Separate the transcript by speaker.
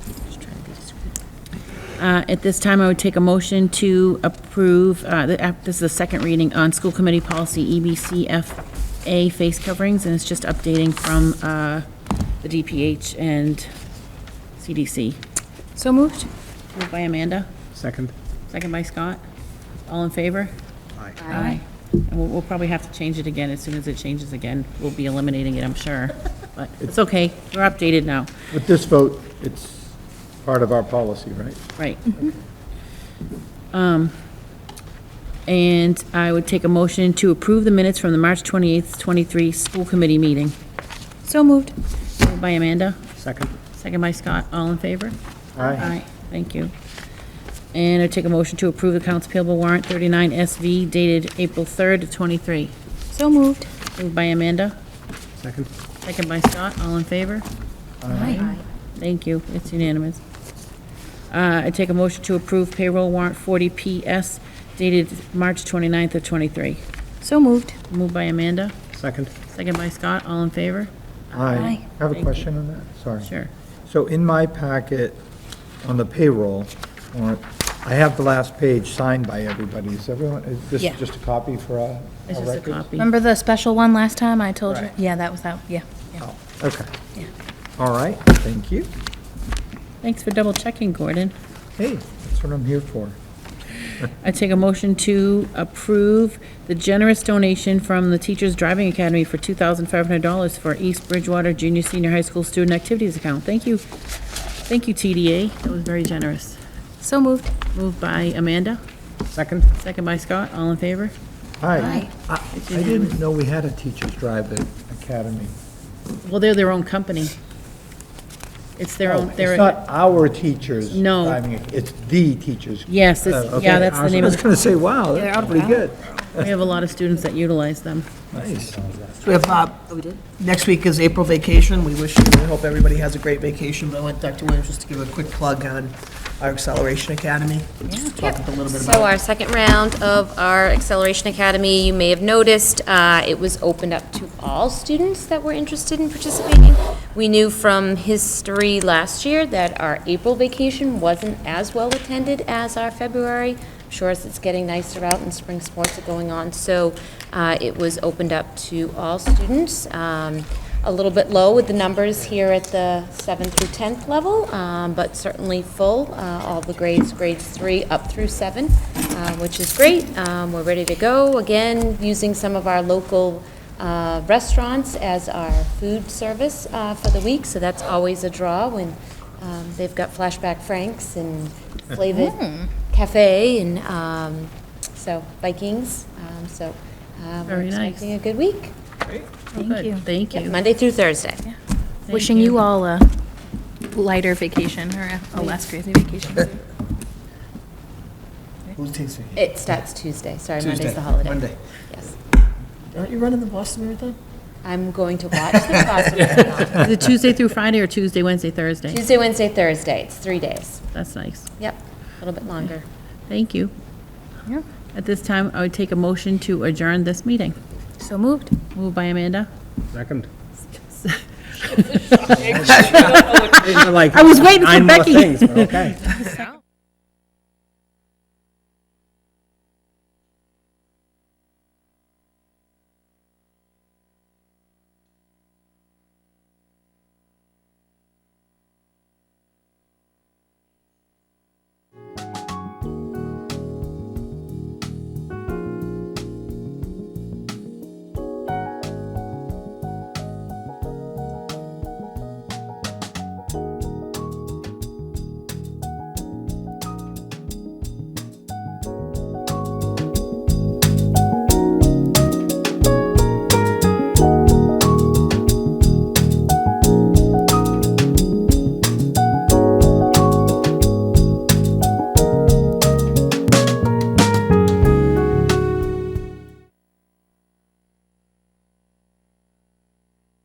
Speaker 1: Uh, At this time, I would take a motion to approve, uh, the app- this is the second reading on school committee policy E EBCFA face coverings, and it's just updating from uh, the DPH and CDC.
Speaker 2: So moved?
Speaker 1: Moved by Amanda,
Speaker 3: Second?
Speaker 1: second by Scott. All in favor?
Speaker 3: Aye.
Speaker 1: Aye. And we'll, we'll probably have to change it again as soon as it changes again. We'll be eliminating it, I'm sure. But it's okay, we're updated now.
Speaker 3: With this vote, it's part of our policy, right?
Speaker 1: Right. Um, And I would take a motion to approve the minutes from the March 28th, 23 school committee meeting.
Speaker 2: So moved.
Speaker 1: Moved by Amanda,
Speaker 3: Second?
Speaker 1: second by Scott. All in favor?
Speaker 3: Aye.
Speaker 1: Thank you. And I'd take a motion to approve accounts payable warrant 39 SV dated April 3rd, of 23.
Speaker 2: So moved.
Speaker 1: Moved by Amanda,
Speaker 3: Second?
Speaker 1: second by Scott. All in favor?
Speaker 2: Aye.
Speaker 1: Thank you, it's unanimous. Uh, I take a motion to approve payroll warrant 40PS dated March 29th of 23.
Speaker 2: So moved.
Speaker 1: Moved by Amanda,
Speaker 3: Second?
Speaker 1: second by Scott, all in favor?
Speaker 2: Aye.
Speaker 3: I have
Speaker 1: Thank
Speaker 3: a
Speaker 1: you.
Speaker 3: question on that, sorry.
Speaker 1: Sure.
Speaker 3: So in my packet, on the payroll, warrant, I have the last page signed by everybody. Is everyone, is this
Speaker 2: Yeah.
Speaker 3: just a copy for our our
Speaker 1: It's just a
Speaker 3: records?
Speaker 1: copy.
Speaker 2: Remember the special one last time I told you?
Speaker 3: Right.
Speaker 2: Yeah, that was that, yeah. yeah.
Speaker 3: Oh, okay.
Speaker 2: Yeah.
Speaker 3: All right, thank you.
Speaker 1: Thanks for double checking, Gordon.
Speaker 3: Hey, that's what I'm here for.
Speaker 1: I take a motion to approve the generous donation from the Teachers Driving Academy for $2,500 for East Bridgewater Junior Senior High School Student Activities Account. Thank you. Thank you, TDA, that was very generous.
Speaker 2: So moved.
Speaker 1: Moved by Amanda,
Speaker 3: Second?
Speaker 1: second by Scott, all in favor?
Speaker 3: Aye. I
Speaker 1: It's
Speaker 3: I
Speaker 1: unanimous.
Speaker 3: didn't know we had a Teachers Drive at Academy.
Speaker 1: Well, they're their own company. It's their
Speaker 3: Oh,
Speaker 1: own, they're.
Speaker 3: It's not our teachers.
Speaker 1: No.
Speaker 3: I mean, it's the teachers.
Speaker 1: Yes, it's-
Speaker 3: Uh, okay.
Speaker 1: yeah, that's the name
Speaker 3: I
Speaker 1: of
Speaker 3: was
Speaker 1: it.
Speaker 3: going to say, wow, that's pretty good.
Speaker 1: We have a lot of students that utilize them.
Speaker 3: Nice.
Speaker 4: So we have, uh, next week is April vacation. We wish, we hope everybody has a great vacation. But I want Dr. Williams just to give a quick plug on our Acceleration Academy. Just Talk a little bit
Speaker 5: So
Speaker 4: about
Speaker 5: our second round of our Acceleration Academy, you may have noticed, uh, it was opened up to all students that were interested in participating. We knew from history last year that our April vacation wasn't as well attended as our February. Sure, as it's getting nicer out and spring sports are going on, so uh, it was opened up to all students. Um, A little bit low with the numbers here at the 7th through 10th level, um, but certainly full, uh, all the grades, grades 3 up through 7, uh, which is great. Um, We're ready to go, again, using some of our local uh, restaurants as our food service uh, for the week, so that's always a draw when um, they've got Flashback Franks and Flavit
Speaker 1: Hmm.
Speaker 5: Cafe and, um, so, Vikings, um, so uh, we're
Speaker 1: Very nice.
Speaker 5: expecting a good week.
Speaker 1: Thank
Speaker 2: you.
Speaker 1: Thank you.
Speaker 5: Monday through Thursday.
Speaker 1: Thank
Speaker 2: Wishing you all a lighter vacation or a- a less crazy vacation.
Speaker 4: Who's Tuesday?
Speaker 5: It starts Tuesday, sorry, Monday's
Speaker 4: Tuesday,
Speaker 5: the holiday.
Speaker 4: Monday.
Speaker 5: Yes.
Speaker 4: Aren't you running the Boston Marathon?
Speaker 5: I'm going to watch the Boston Marathon.
Speaker 1: Is it Tuesday through Friday or Tuesday, Wednesday, Thursday?
Speaker 5: Tuesday, Wednesday, Thursday, it's three days.
Speaker 1: That's nice.
Speaker 5: Yep, a little bit longer.
Speaker 1: Thank you.
Speaker 2: Yeah.
Speaker 1: At this time, I would take a motion to adjourn this meeting.
Speaker 2: So moved.
Speaker 1: Moved by Amanda.
Speaker 3: Second.
Speaker 1: I was waiting for Becky.
Speaker 3: okay.
Speaker 5: So-